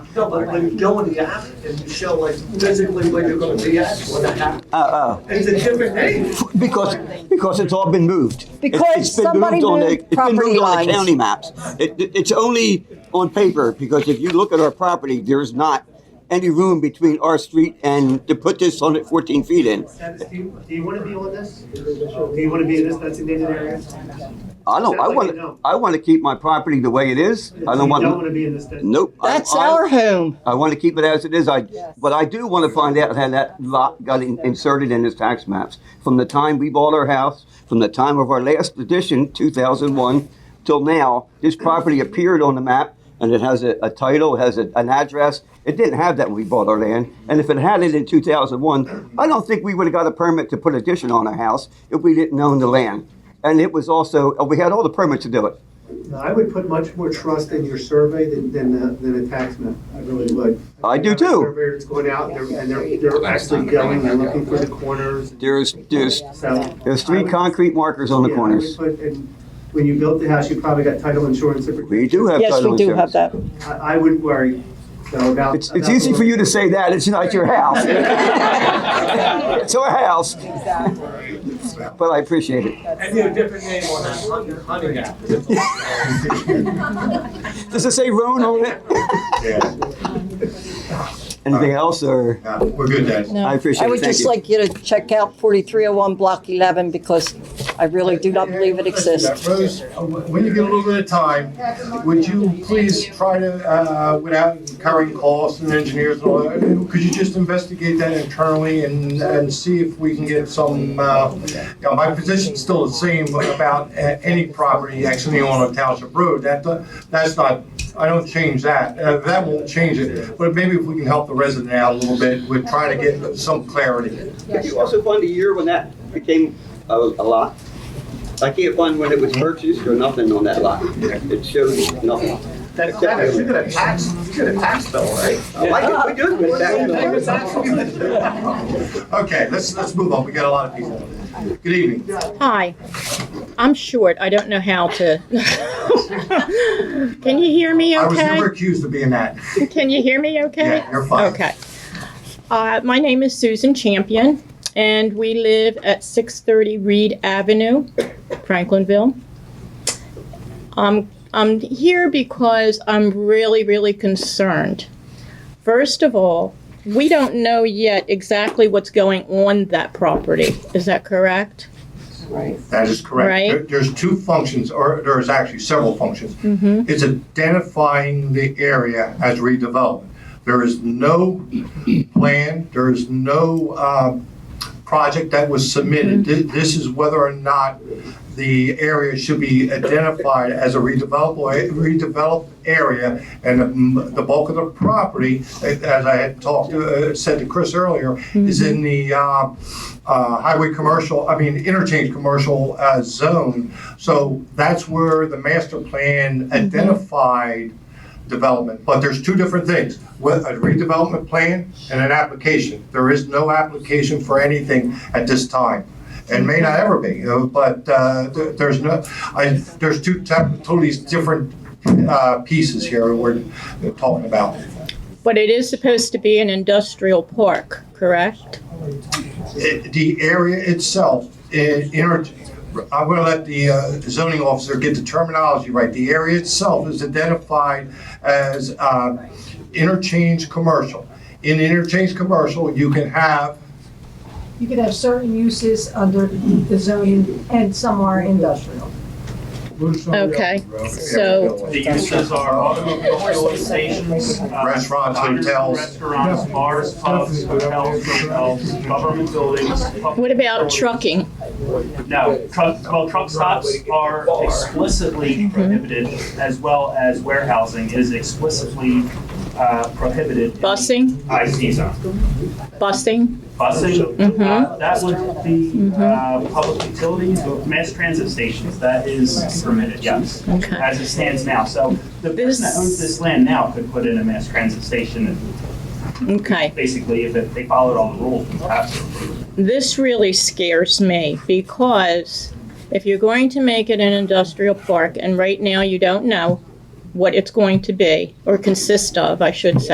No, but when you go in the app and you show like physically where you're gonna be at, what happened, Oh, it's a different name. oh. Because, because it's all been moved. It- Because it's been somebody on the- moved It's been property moved on lines. the county maps. It, it- it's only on paper, because if you look at our property, there is not any room between our street and to put this on at fourteen feet in. Dennis, do you, do you wanna be on this? Do you wanna be in this designated area? I don't, I Sounds like you want, don't. I want to keep my property the way it is. I don't You don't wanna want, be in this. desi- nope. I- That's I- our home. I want to keep it as it is. I, but I do want to find out how that lot got in- inserted in his tax maps. From the time we bought our house, from the time of our last edition, 2001, till now, this property appeared on the map and it has a, a title, it has a, an address. It didn't have that when we bought our land. And if it had it in 2001, I don't think we would have got a permit to put addition on our house if we didn't own the land. And it was also, we had all the permits to do it. No, I would put much more trust in your survey than, than, the- than a tax map. I really would. I do have a too. Surveyor that's going out and they're, and they're, they're actually going, they're looking for the corners. There's, there's, So. there's three concrete markers on the Yeah, I would corners. put- and When you built the house, you probably got title insurance. and We do have Yes, title we do insurance. have that. I, I wouldn't worry, so about. It's, it's about- easy for you to say that, it's not your house. It's our house. But I appreciate it. I need a different name on that, hunting, hunting app. Does it say Roan on it? Yeah, Anything else, or? no, we're good, Dennis. No. I appreciate I it. would Thank just you. like you to check out 4301 Block 11 because I really do not believe it exists. Rose, when you get a little bit of time, would you please try to, uh, without incurring costs and engineers and all that, could you just investigate that internally and, and see if we can get some, uh, you know, my position's still the same about a- any property actually on a township road, that, do- that's not, I don't change that, Uh, that won't change it, but maybe if we can help the resident out a little bit, we're trying to get some clarity. Could you also find the year when that became a, a lot? I can't find when it was purchased or nothing on that lot. It shows nothing. That's, that's, you got a tax, you got a tax bill, right? I like it, we do it back. Okay, let's, let's move on, we got a lot of people. Good evening. Hi, I'm short. I don't know how to. Can you hear me I was okay? never accused of being that. Can you hear me okay? Yeah, you're fine. Okay. Uh, my name is Susan Champion, and we live at 630 Reed Avenue, Franklinville. Um, I'm here because I'm really, really concerned. First of all, we don't know yet exactly what's going on that property. Is that correct? That is correct. Right. There- There's two functions, or there's actually several functions. Mm-hmm. It's identifying the area as redevelopment. There is no plan, there is no um, project that was submitted. Mm-hmm. Thi- This is whether or not the area should be identified as a redevelopable, redeveloped area. And um, the bulk of the property, as I had talked, to- uh, said to Chris earlier, is in the uh, uh, highway commercial, I mean, interchange commercial uh, zone. So that's where the master plan identified development. But there's two different things, with a redevelopment plan and an application. There is no application for anything at this time. And may not ever be, you know, but uh, there- there's no, I, there's two tep- totally different uh, pieces here we're talking about. But it is supposed to be an industrial park, correct? it- Uh, the area itself, i- inter- I'm going to let the uh, zoning officer get the terminology right. The area itself is identified as uh, interchange commercial. In interchange commercial, you can have You could have certain uses under the zoning and some are industrial. Okay, so, The uses are automobile fueling stations. uh, Restaurants, diners, hotels. Restaurants, bars, pubs, hotels, hotels, government buildings. public what about facilities. trucking? No, truck, well, truck stops are explicitly prohibited, as well as warehousing is explicitly uh, prohibited. in the Busing, IC zone. busing, busing, Mhm. uh, that would be, uh, public utilities, mass transit stations, that is permitted, yes, okay. as it stands now. So the person that owns this land now could put in a mass transit station, Okay, basically, if it- they followed all the rules, absolutely. this really scares me because if you're going to make it an industrial park and right now you don't know what it's going to be or consist of, I should say.